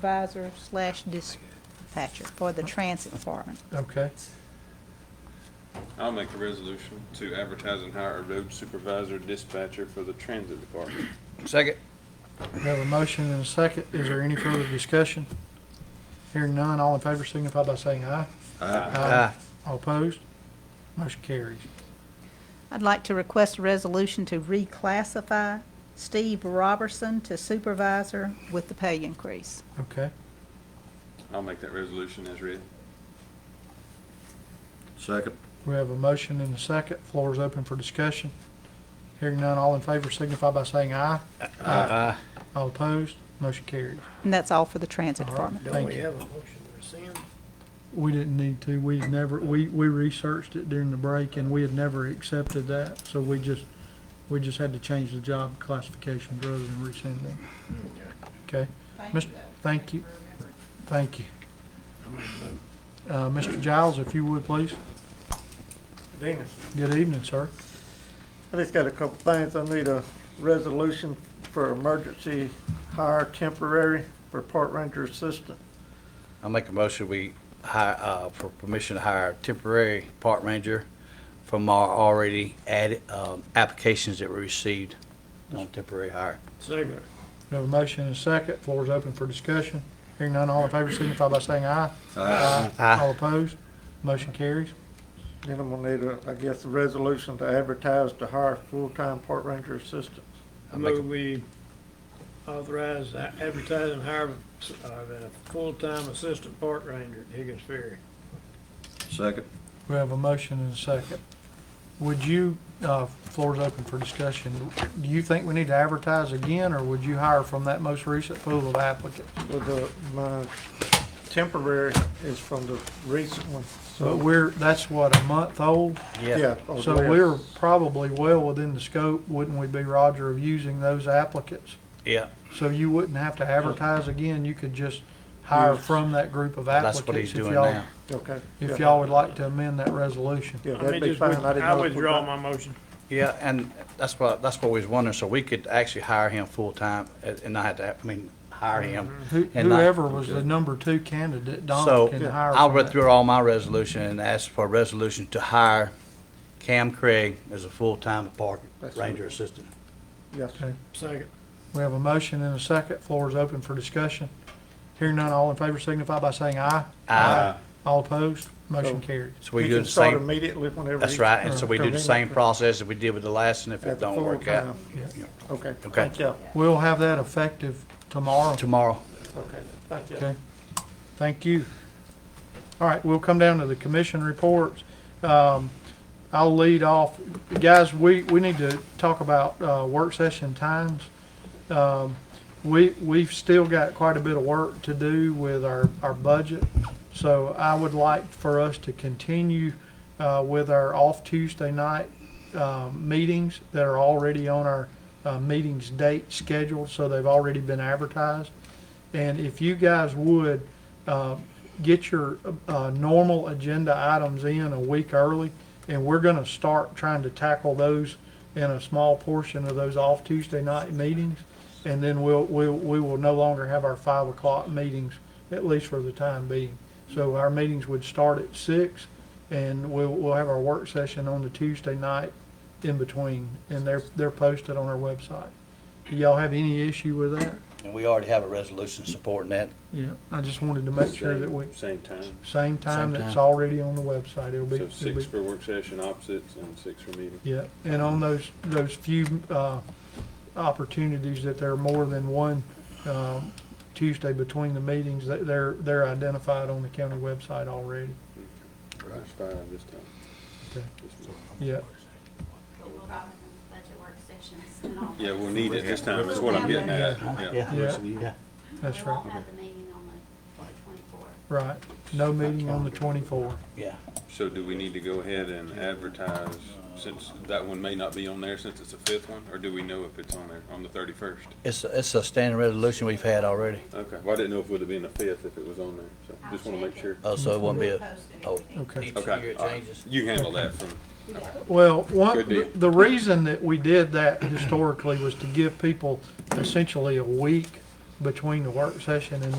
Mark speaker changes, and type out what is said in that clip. Speaker 1: supervisor slash dispatcher for the transit department.
Speaker 2: Okay.
Speaker 3: I'll make a resolution to advertise and hire a road supervisor dispatcher for the transit department.
Speaker 4: Second.
Speaker 2: We have a motion and a second. Is there any further discussion? Hearing none, all in favor signify by saying aye. Um,
Speaker 4: Aye.
Speaker 2: All opposed? Motion carries.
Speaker 1: I'd like to request a resolution to reclassify Steve Robertson to supervisor with the pay increase.
Speaker 2: Okay.
Speaker 3: I'll make that resolution as read.
Speaker 5: Second.
Speaker 2: We have a motion and a second. Floor is open for discussion. Hearing none, all in favor signify by saying aye.
Speaker 4: Aye.
Speaker 2: All opposed? Motion carries.
Speaker 1: And that's all for the transit
Speaker 2: All right.
Speaker 1: department.
Speaker 2: Thank
Speaker 6: Don't we
Speaker 2: you.
Speaker 6: have a motion to rescind?
Speaker 2: We didn't need to. We never, we, we researched it during the break and we had never accepted that. So we just, we just had to change the job classification rather than rescind it. Okay? Mis- Thank you. Thank you. Uh, Mr. Giles, if you would, please.
Speaker 6: Dennis,
Speaker 2: Good evening, sir.
Speaker 6: I just got a couple things. I need a resolution for emergency hire temporary for park ranger assistant.
Speaker 4: I'll make a motion, we hire, uh, for permission to hire temporary park ranger from our already added, um, applications that we received on temporary hire.
Speaker 6: Second.
Speaker 2: We have a motion and a second. Floor is open for discussion. Hearing none, all in favor signify by saying aye. Aye.
Speaker 4: Aye.
Speaker 2: All opposed? Motion carries.
Speaker 6: Then I'm gonna need a, I guess, a resolution to advertise to hire full-time park ranger assistant.
Speaker 7: I
Speaker 4: make a-
Speaker 7: move we authorize a- advertising hire of a full-time assistant park ranger at Higgins Ferry.
Speaker 5: Second.
Speaker 2: We have a motion and a second. Would you, uh, floor is open for discussion. Do you think we need to advertise again, or would you hire from that most recent pool of applicants?
Speaker 6: Well, the, my temporary is from the recent one,
Speaker 2: But
Speaker 6: so.
Speaker 2: we're, that's what, a month old?
Speaker 6: Yeah. oh,
Speaker 2: So
Speaker 6: yes.
Speaker 2: we're probably well within the scope, wouldn't we be, Roger, of using those applicants?
Speaker 4: Yeah,
Speaker 2: So you wouldn't have to advertise again, you could just hire from that group of applicants.
Speaker 4: that's what he's
Speaker 2: if
Speaker 4: doing
Speaker 2: y'all-
Speaker 4: now.
Speaker 6: Okay.
Speaker 2: If
Speaker 6: yeah.
Speaker 2: y'all would like to amend that resolution.
Speaker 6: Yeah,
Speaker 7: I
Speaker 6: that'd
Speaker 7: mean,
Speaker 6: be
Speaker 7: just
Speaker 6: fine.
Speaker 7: with-
Speaker 6: I didn't
Speaker 7: I
Speaker 6: know if we
Speaker 7: withdraw
Speaker 6: got-
Speaker 7: my motion.
Speaker 4: Yeah, and that's what, that's what we was wondering, so we could actually hire him full-time and and not have to, I mean, hire him.
Speaker 2: Who-
Speaker 4: And not-
Speaker 2: Whoever was the number two candidate, Mm-hmm. Don
Speaker 4: So
Speaker 2: can hire.
Speaker 4: I'll
Speaker 2: from
Speaker 4: read
Speaker 2: that.
Speaker 4: through all my resolution and ask for a resolution to hire Cam Craig as a full-time park
Speaker 6: That's
Speaker 4: ranger
Speaker 6: right.
Speaker 4: assistant.
Speaker 6: Yes.
Speaker 2: Okay.
Speaker 7: Second.
Speaker 2: We have a motion and a second. Floor is open for discussion. Hearing none, all in favor signify by saying aye.
Speaker 4: Aye.
Speaker 2: All opposed, motion carries.
Speaker 4: So we
Speaker 6: He
Speaker 4: do
Speaker 6: can
Speaker 4: the
Speaker 6: start
Speaker 4: same,
Speaker 6: Immediately uh, whenever.
Speaker 4: that's
Speaker 6: he-
Speaker 4: right, and so we do the
Speaker 6: Convenient.
Speaker 4: same process that we did with the last, and if
Speaker 6: At
Speaker 4: it
Speaker 6: the
Speaker 4: don't work out,
Speaker 6: full-time.
Speaker 2: Yeah.
Speaker 6: Okay.
Speaker 4: Okay.
Speaker 6: Thank you.
Speaker 2: We'll have that effective tomorrow.
Speaker 4: tomorrow.
Speaker 6: Okay, thank you.
Speaker 2: Okay. Thank you. All right, we'll come down to the commission reports. Um, I'll lead off. Guys, we, we need to talk about, uh, work session times. Um, we, we've still got quite a bit of work to do with our, our budget. So I would like for us to continue, uh, with our off Tuesday night, um, meetings that are already on our, uh, meetings date scheduled, so they've already been advertised. And if you guys would, uh, get your, uh, normal agenda items in a week early, and we're gonna start trying to tackle those in a small portion of those off Tuesday night meetings. And then we'll, we'll, we will no longer have our five o'clock meetings, at least for the time being. So our meetings would start at six, and we'll, we'll have our work session on the Tuesday night in between, and they're, they're posted on our website. Do y'all have any issue with that?
Speaker 4: And we already have a resolution supporting that.
Speaker 2: Yeah, I just wanted to make sure that we,
Speaker 3: Same time,
Speaker 2: same time
Speaker 4: Same
Speaker 2: that's
Speaker 4: time.
Speaker 2: already on the website, it'll be.
Speaker 3: so
Speaker 2: it'll be-
Speaker 3: six for work session opposites and six for meeting.
Speaker 2: Yeah, and on those, those few, uh, opportunities that there are more than one, um, Tuesday between the meetings, that they're, they're identified on the county website already.
Speaker 3: There's five this time.
Speaker 2: Okay.
Speaker 3: This month.
Speaker 2: Yeah,
Speaker 8: We'll probably have budget work sessions and all.
Speaker 3: Yeah,
Speaker 8: that.
Speaker 3: we'll need it this time, is what I'm getting at, yeah.
Speaker 2: yeah,
Speaker 4: Yeah.
Speaker 2: that's
Speaker 8: We
Speaker 2: right,
Speaker 8: won't have the meeting on the twenty-fourth.
Speaker 2: right. No meeting on the twenty-fourth.
Speaker 4: Yeah.
Speaker 3: So do we need to go ahead and advertise, since that one may not be on there, since it's the fifth one, or do we know if it's on there, on the thirty-first?
Speaker 4: It's, a- it's a standing resolution we've had already,
Speaker 3: Okay, well, I didn't know if it would have been the fifth if it was on there, so just wanna make sure.
Speaker 4: Oh, so it won't be a, oh.
Speaker 2: Okay.
Speaker 4: each year
Speaker 3: Okay,
Speaker 4: it
Speaker 3: all right.
Speaker 4: changes.
Speaker 3: you can handle that from,
Speaker 2: Well, one,
Speaker 3: Good deal.
Speaker 2: the reason that we did that historically was to give people essentially a week between the work session and